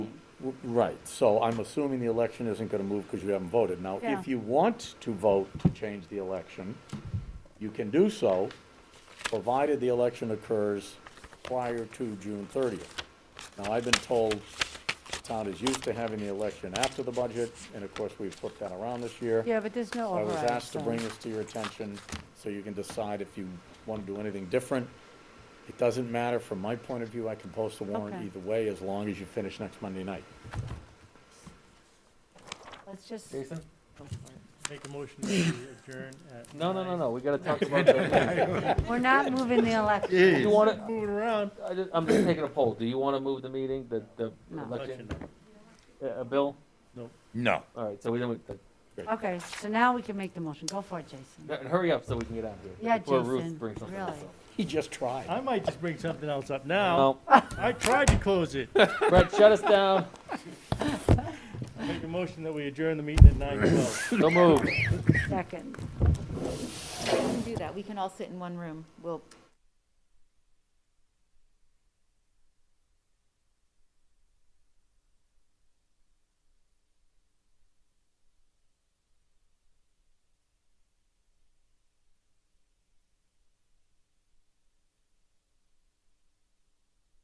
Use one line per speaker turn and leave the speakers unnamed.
W- Right, so I'm assuming the election isn't gonna move because you haven't voted. Now,
Yeah.
if you want to vote to change the election, you can do so, provided the election occurs prior to June thirtieth. Now, I've been told the town is used to having the election after the budget, and of course, we've flipped that around this year.
Yeah, but there's no
I was
override.
asked to
so-
bring this to your attention, so you can decide if you want to do anything different. It doesn't matter, from my point of view, I can post a warrant
Okay.
either way, as long as you finish next Monday night.
Let's just,
Jason?
Make a motion to adjourn at.
No, no, no,
nine.
no, we gotta talk about that.
we're not moving the election.
Do you wanna,
Moving around.
I just, I'm just taking a poll, do you wanna move the meeting, the, the
No.
election?
Election.
Uh, uh, Bill?
No.
All right, so we don't,
Okay, so now we can make the motion. Go for it, Jason.
and hurry up so we can get out of here.
Yeah,
Before Ruth
Jason,
brings something
really.
else up.
He just tried.
I might just bring something else up now.
No,
I tried to close it.
Brett, shut us down,
Make a motion that we adjourn the meeting at nine twelve.
don't move.
Second.
We can do that. We can all sit in one room. We'll